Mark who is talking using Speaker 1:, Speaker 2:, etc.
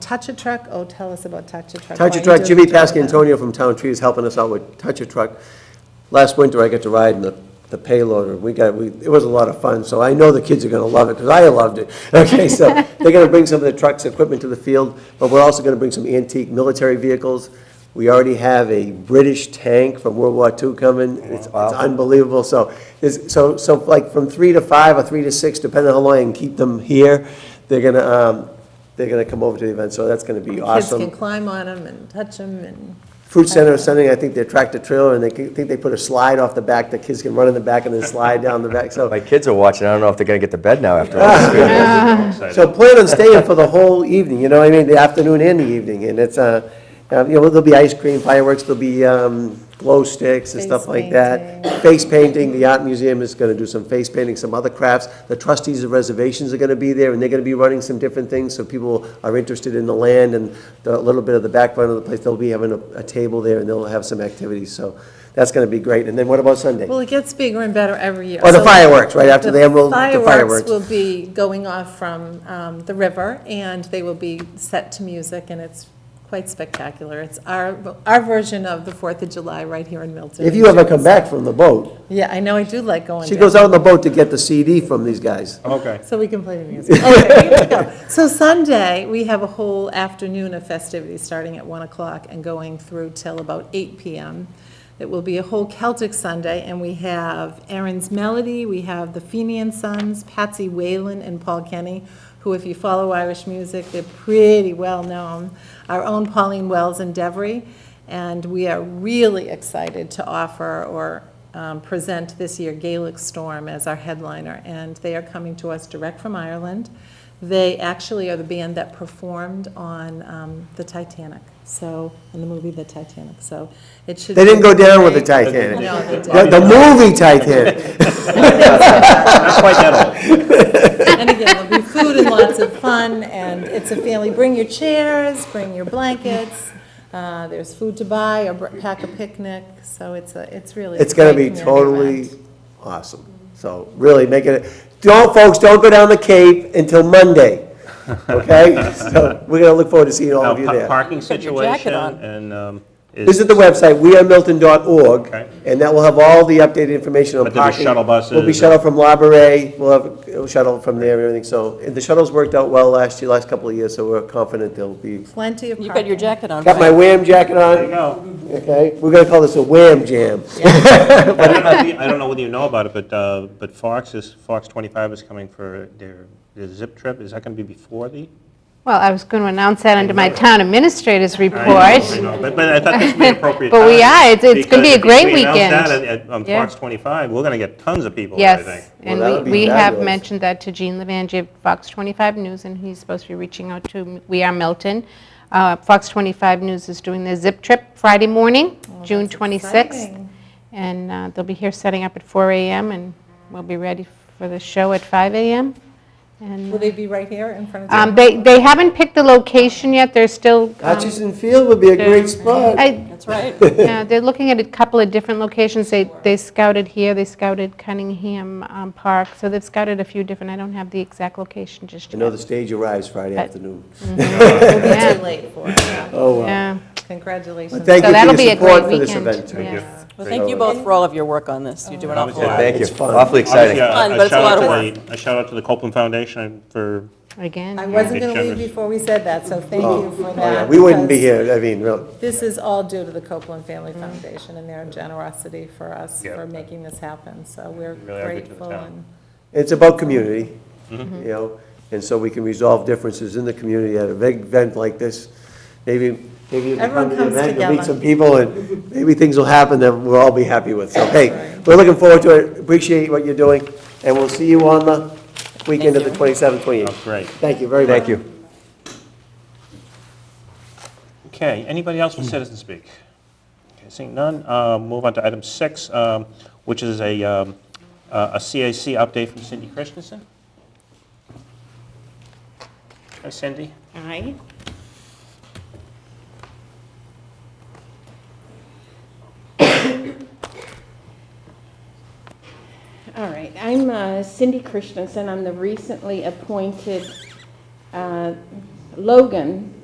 Speaker 1: Touch a Truck, oh, tell us about Touch a Truck.
Speaker 2: Touch a
Speaker 1: Why
Speaker 2: Truck,
Speaker 1: you
Speaker 2: Jimmy
Speaker 1: doing that?
Speaker 2: Pascantonio from Town Tree is helping us out with Touch a Truck. Last winter, I got to ride in the, the payloader, we got, we, it was a lot of fun, so I know the kids are gonna love it, because I loved it. Okay, so, they're gonna bring some of the trucks, equipment to the field, but we're also gonna bring some antique military vehicles. We already have a British tank from World War II coming, it's it's unbelievable, so, there's- so, so like from three to five or three to six, depending on how long I can keep them here, they're gonna, um, they're gonna come over to the event, so that's gonna be
Speaker 1: Kids
Speaker 2: awesome.
Speaker 1: can climb on them and touch them and,
Speaker 2: Fruit Center is sending, I think, their tractor trailer, and they can- think they put a slide off the back, the kids can run in the back and then slide down the back, so.
Speaker 3: My kids are watching, I don't know if they're gonna get to bed now after all this.
Speaker 2: So plan on staying for the whole evening, you know what I mean, the afternoon and the evening, and it's, uh, uh, you know, there'll be ice cream, fireworks, there'll be, um, glow sticks and stuff
Speaker 1: Face
Speaker 2: like that. Face painting, the art museum is gonna do some face painting, some other crafts, the trustees of reservations are gonna be there, and they're gonna be running some different things, so people are interested in the land and the, a little bit of the background of the place, they'll be having a, a table there, and they'll have some activities, so that's gonna be great, and then what about Sunday?
Speaker 1: well, it gets bigger and better every year.
Speaker 2: Oh, the
Speaker 1: So
Speaker 2: fireworks, right after the Emerald, the
Speaker 1: Fireworks
Speaker 2: fireworks.
Speaker 1: will be going off from um, the river, and they will be set to music, and it's quite spectacular. It's our, our version of the Fourth of July right here in Milton.
Speaker 2: If you ever come back from the boat,
Speaker 1: Yeah, I know, I do like going
Speaker 2: she
Speaker 1: down.
Speaker 2: goes out on the boat to get the CD from these guys.
Speaker 4: Okay.
Speaker 1: So we can play the music. Okay, here we go. So Sunday, we have a whole afternoon of festivities, starting at 1 o'clock and going through till about 8 PM. It will be a whole Celtic Sunday, and we have Aaron's Melody, we have the Fenian Sons, Patsy Whalen, and Paul Kenny, who, if you follow Irish music, they're pretty well-known. Our own Pauline Wells and Devery, and we are really excited to offer or um, present this year Gaelic Storm as our headliner, and they are coming to us direct from Ireland. They actually are the band that performed on um, the Titanic, so, in the movie The Titanic, so it should.
Speaker 2: They didn't go down with the
Speaker 1: Titanic.
Speaker 2: Titanic.
Speaker 1: No, they didn't.
Speaker 2: The, the movie Titanic.
Speaker 4: Not quite that old.
Speaker 1: And again, there'll be food and lots of fun, and it's a family, bring your chairs, bring your blankets, uh, there's food to buy, or br- pack a picnic, so it's a, it's really. a
Speaker 2: It's gonna
Speaker 1: great
Speaker 2: be
Speaker 1: community
Speaker 2: totally
Speaker 1: event.
Speaker 2: awesome. So really make it, don't, folks, don't go down the Cape until Monday, okay? So we're gonna look forward to seeing all
Speaker 4: No,
Speaker 2: of you
Speaker 4: pa-
Speaker 2: there.
Speaker 4: Parking
Speaker 5: your jacket
Speaker 4: situation
Speaker 5: on.
Speaker 4: and, um. is-
Speaker 2: Visit the website,
Speaker 4: Okay.
Speaker 2: wearemilton.org, and that will have all the updated information on
Speaker 4: But
Speaker 2: parking.
Speaker 4: there'll be shuttle
Speaker 2: We'll be
Speaker 4: buses
Speaker 2: shuttle from La Brea, we'll have a shuttle from there and everything, so and the shuttles worked out well last year, last couple of years, so we're confident they'll be.
Speaker 1: Plenty of
Speaker 5: You've got your
Speaker 1: parking.
Speaker 5: jacket on,
Speaker 2: Got my
Speaker 5: right?
Speaker 2: wham jacket
Speaker 4: There you
Speaker 2: on,
Speaker 4: go.
Speaker 2: okay? We're gonna call this a wham jam.
Speaker 4: I don't know if you- I don't know whether you know about it, but, uh, but Fox is, Fox 25 is coming for their, their zip trip. Is that going to be before the?
Speaker 6: Well, I was going to announce that under my town administrator's
Speaker 4: I know, I
Speaker 6: report.
Speaker 4: know, But, but I thought this would be appropriate.
Speaker 6: But we
Speaker 4: time,
Speaker 6: are. It's- it's gonna be
Speaker 4: because
Speaker 6: a
Speaker 4: if
Speaker 6: great
Speaker 4: we announce
Speaker 6: weekend.
Speaker 4: that at- at- On
Speaker 6: Yeah.
Speaker 4: Fox 25, we're going to get tons of people, there, I think.
Speaker 6: Yes,
Speaker 2: Well, that would
Speaker 6: and
Speaker 2: be
Speaker 6: we- we have
Speaker 2: fabulous.
Speaker 6: mentioned that to Gene Levangie of Fox 25 News, and he's supposed to be reaching out to We Are Milton. Uh, Fox 25 News is doing their zip trip Friday morning,
Speaker 4: Oh,
Speaker 6: June 26th.
Speaker 1: exciting.
Speaker 6: And uh, they'll be here setting up at 4 AM, and we'll be ready for the show at 5 AM. And
Speaker 1: Will they be right here in front of?
Speaker 6: um, they they haven't picked the location yet, they're still... um,
Speaker 2: Hutchinson Field would be a great spot.
Speaker 6: I-
Speaker 5: That's right.
Speaker 6: Yeah, they're looking at a couple of different locations. They they scouted here, they scouted Cunningham um, Park, so they've scouted a few different, I don't have the exact location just
Speaker 2: I
Speaker 6: yet.
Speaker 2: know the stage arrives Friday afternoon.
Speaker 1: It's too
Speaker 6: Yeah,
Speaker 1: late for it.
Speaker 2: Oh, wow.
Speaker 6: Mm. yeah.
Speaker 1: Congratulations.
Speaker 2: Thank
Speaker 6: So
Speaker 2: you
Speaker 6: that'll
Speaker 2: for
Speaker 6: be
Speaker 2: your
Speaker 6: a great
Speaker 2: support for this
Speaker 6: weekend.
Speaker 2: event.
Speaker 6: yes.
Speaker 5: Well, thank you both for all of your work on this. You do an awful
Speaker 4: Yeah,
Speaker 5: lot.
Speaker 3: Oh, Thank you,
Speaker 2: Ah, It's fun.
Speaker 3: awfully
Speaker 4: Obviously, uh,
Speaker 3: exciting.
Speaker 4: a-
Speaker 5: Fun, but it's a
Speaker 4: shout out
Speaker 5: lot of
Speaker 4: to the- A shout out to the Copeland Foundation for
Speaker 1: I
Speaker 6: Again,
Speaker 1: wasn't going to leave before we said that, so thank you for
Speaker 2: Oh, yeah,
Speaker 1: that.
Speaker 2: We wouldn't be
Speaker 1: because
Speaker 2: here, I mean, really.
Speaker 1: This is all due to the Copeland Family Foundation and their generosity for us,
Speaker 4: Yeah.
Speaker 1: for making this happen, so we're
Speaker 4: Really are good to the
Speaker 1: grateful.
Speaker 4: town.
Speaker 1: and-
Speaker 2: It's about community, you
Speaker 5: Mm-hmm.
Speaker 2: know, and so we can resolve differences in the community at a big event like this. Maybe, maybe if you come
Speaker 1: Everyone
Speaker 2: to the
Speaker 1: comes
Speaker 2: event, you'll meet
Speaker 1: together.
Speaker 2: some people, and maybe things will happen that we'll all be happy with. So, hey,
Speaker 1: Right.
Speaker 2: we're looking forward to it, appreciate what you're doing, and we'll see you on the weekend of the 27th, 28th.
Speaker 4: Oh, great.
Speaker 2: Thank you very much.
Speaker 3: Thank you.
Speaker 4: Okay, anybody else with citizen speak? Okay, Seeing none, uh, move on to item six, um, which is a um, uh, a CAC update from Cindy Christensen. Hi, Cindy.
Speaker 7: Aye. All right, I'm uh, Cindy Christensen, I'm the recently appointed uh, Logan